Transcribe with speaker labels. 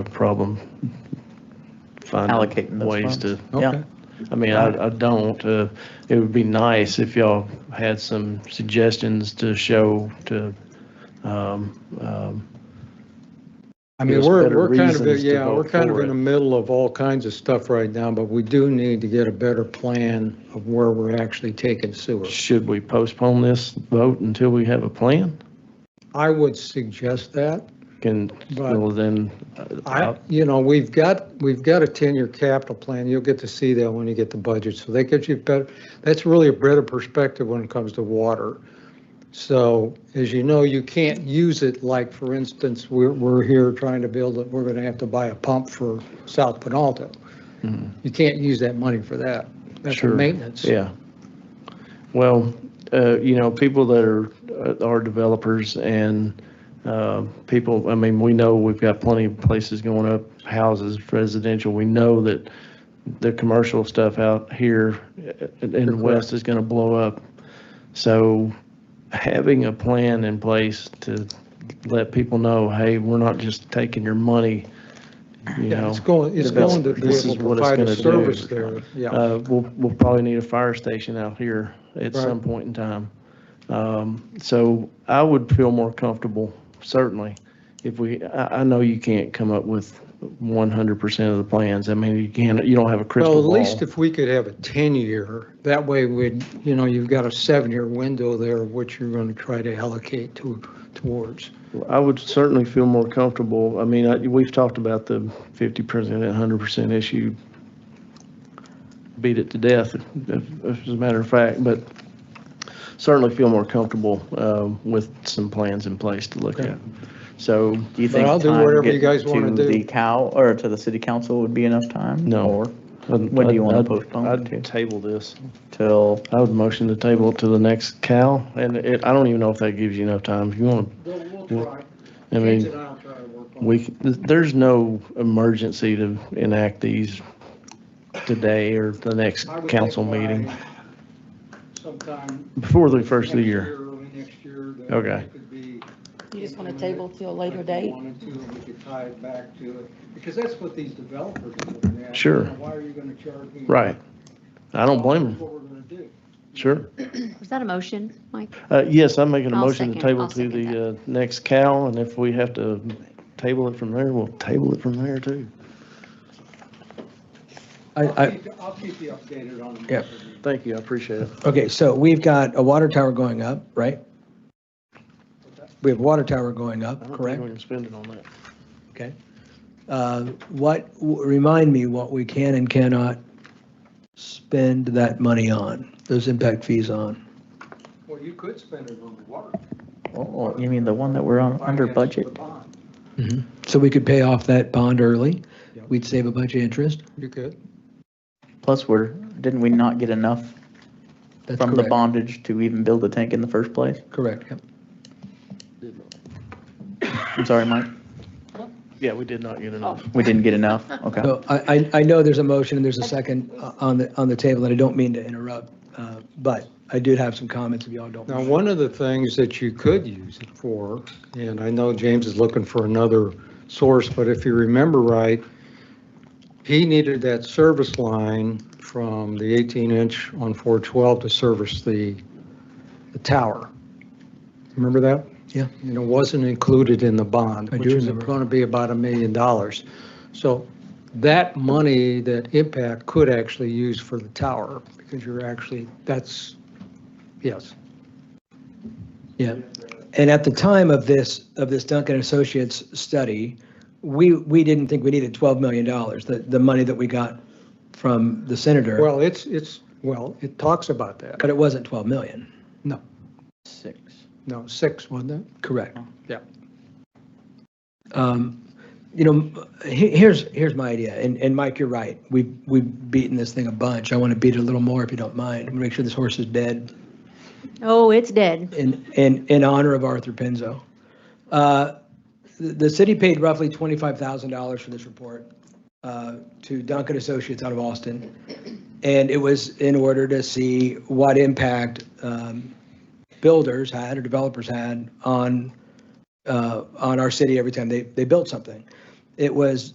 Speaker 1: a problem
Speaker 2: Allocating
Speaker 1: finding
Speaker 2: those
Speaker 1: ways to,
Speaker 2: Yeah.
Speaker 3: Okay.
Speaker 1: I mean, I, I don't, uh, it would be nice if y'all had some suggestions to show to, um, um,
Speaker 3: I mean,
Speaker 1: Gives
Speaker 3: we're,
Speaker 1: better
Speaker 3: we're kind of,
Speaker 1: reasons to
Speaker 3: yeah,
Speaker 1: vote
Speaker 3: we're kind of
Speaker 1: for
Speaker 3: in
Speaker 1: it.
Speaker 3: the middle of all kinds of stuff right now, but we do need to get a better plan of where we're actually taking sewer.
Speaker 1: should we postpone this vote until we have a plan?
Speaker 3: I would suggest that.
Speaker 1: Can,
Speaker 3: But-
Speaker 1: well, then, uh,
Speaker 3: I, you know, we've got, we've got a 10-year capital plan. You'll get to see that when you get the budget. So that gives you better, that's really a better perspective when it comes to water. So as you know, you can't use it like, for instance, we're, we're here trying to build, it. we're going to have to buy a pump for South Penalto. You can't use that money for that. That's
Speaker 1: Mm-hmm.
Speaker 3: for
Speaker 1: Sure.
Speaker 3: maintenance.
Speaker 1: Yeah. Well, uh, you know, people that are, uh, are developers and uh, people, I mean, we know we've got plenty of places going up, houses, residential. We know that the commercial stuff out here uh, in in the west is going to blow up. So having a plan in place to let people know, hey, we're not just taking your money, you
Speaker 3: Yeah,
Speaker 1: know.
Speaker 3: it's going, it's
Speaker 1: that's-
Speaker 3: going to be
Speaker 1: this
Speaker 3: able
Speaker 1: is
Speaker 3: to
Speaker 1: what it's
Speaker 3: provide a
Speaker 1: gonna do.
Speaker 3: service there. Yeah.
Speaker 1: Uh, We'll, we'll probably need a fire station out here at
Speaker 3: Right.
Speaker 1: some point in time. Um, So I would feel more comfortable, certainly, if we, I, I know you can't come up with 100% of the plans. I mean, you can't, you don't have a
Speaker 3: Well,
Speaker 1: crystal
Speaker 3: at least
Speaker 1: ball.
Speaker 3: if we could have a 10-year, that way we'd, you know, you've got a seven-year window there, which you're going to try to allocate to, towards.
Speaker 1: I would certainly feel more comfortable. I mean, I, we've talked about the 50% and 100% issue. Beat it to death, if, if as a matter of fact, but certainly feel more comfortable, um, with some plans in place to look
Speaker 3: Okay.
Speaker 1: at. So
Speaker 2: Do you
Speaker 3: But
Speaker 2: think
Speaker 3: I'll do
Speaker 2: time
Speaker 3: whatever you
Speaker 2: getting
Speaker 3: guys wanna
Speaker 2: To the
Speaker 3: do.
Speaker 2: cow, or to the city council would be enough time?
Speaker 1: No.
Speaker 2: Or
Speaker 1: I'd-
Speaker 2: When do
Speaker 1: I'd-
Speaker 2: you wanna
Speaker 1: I'd-
Speaker 2: postpone it to?
Speaker 1: I'd table this.
Speaker 2: till,
Speaker 1: I would motion to table it to the next Cal, and it, I don't even know if that gives you enough time. If you want,
Speaker 3: We'll
Speaker 1: try. I mean, we, c- there's no emergency to enact these today or the next council meeting,
Speaker 3: Sometime
Speaker 1: before the first of the year.
Speaker 3: early next year.
Speaker 1: Okay. it
Speaker 4: You just want to table till a later date?
Speaker 3: we could tie it back to it, because that's what these developers are looking at.
Speaker 1: Sure.
Speaker 3: Why are you going to charge me?
Speaker 1: Right. I don't blame them,
Speaker 3: what we're going to do.
Speaker 1: sure.
Speaker 5: Was that a motion, Mike?
Speaker 1: Uh, yes, I'm making a
Speaker 5: I'll
Speaker 1: motion to
Speaker 5: second-
Speaker 1: table
Speaker 5: I'll
Speaker 1: to
Speaker 5: second
Speaker 1: the, uh, next Cal, and if we have to table it from there, we'll table it from there too.
Speaker 6: I, I,
Speaker 3: I'll keep you updated on
Speaker 6: Yep.
Speaker 1: Thank you, I appreciate it.
Speaker 6: okay, so we've got a water tower going up, right? We have a water tower going
Speaker 1: I
Speaker 6: up,
Speaker 1: don't think
Speaker 6: correct?
Speaker 1: we can spend it on that.
Speaker 6: Okay. Uh, What, remind me what we can and cannot spend that money on, those impact fees on.
Speaker 3: Well, you could spend it on the water.
Speaker 2: oh, you mean the one that we're on, under
Speaker 3: Finance the
Speaker 2: budget?
Speaker 3: bond.
Speaker 6: So we could pay off that bond early, we'd save a bunch of interest,
Speaker 3: You could.
Speaker 2: Plus, we're, didn't we not get enough
Speaker 6: that's
Speaker 2: from the
Speaker 6: correct.
Speaker 2: bondage to even build the tank in the first place?
Speaker 6: Correct, yep.
Speaker 2: I'm sorry, Mike,
Speaker 1: Yeah, we did not get
Speaker 5: Oh.
Speaker 1: enough.
Speaker 2: we didn't get enough, okay.
Speaker 6: So I, I, I know there's a motion and there's a second uh, on the, on the table, and I don't mean to interrupt, uh, but I did have some comments if y'all don't.
Speaker 3: Now, one of the things that you could use it for, and I know James is looking for another source, but if you remember right, he needed that service line from the 18-inch on 412 to service the, the tower. Remember that?
Speaker 6: Yeah.
Speaker 3: And it wasn't included in the bond,
Speaker 6: I do
Speaker 3: which is
Speaker 6: remember.
Speaker 3: going to be about a million dollars. So that money that Impact could actually use for the tower, because you're actually, that's, yes.
Speaker 6: Yeah. And at the time of this, of this Duncan Associates study, we, we didn't think we needed $12 million, the, the money that we got from the senator,
Speaker 3: Well, it's, it's, well, it talks about that.
Speaker 6: but it wasn't 12 million.
Speaker 2: Six.
Speaker 3: No, six, wasn't it?
Speaker 6: Correct.
Speaker 3: Yeah.
Speaker 6: Um, You know, he- here's, here's my idea, and, and Mike, you're right. We've, we've beaten this thing a bunch. I want to beat it a little more if you don't mind. I'm gonna Make sure this horse is dead.
Speaker 5: Oh, it's dead.
Speaker 6: in, in, in honor of Arthur Penzo. Uh, The the city paid roughly $25,000 for this report uh, to Duncan Associates out of Austin. And it was in order to see what impact um, builders had or developers had on, uh, on our city every time they, they built something. It was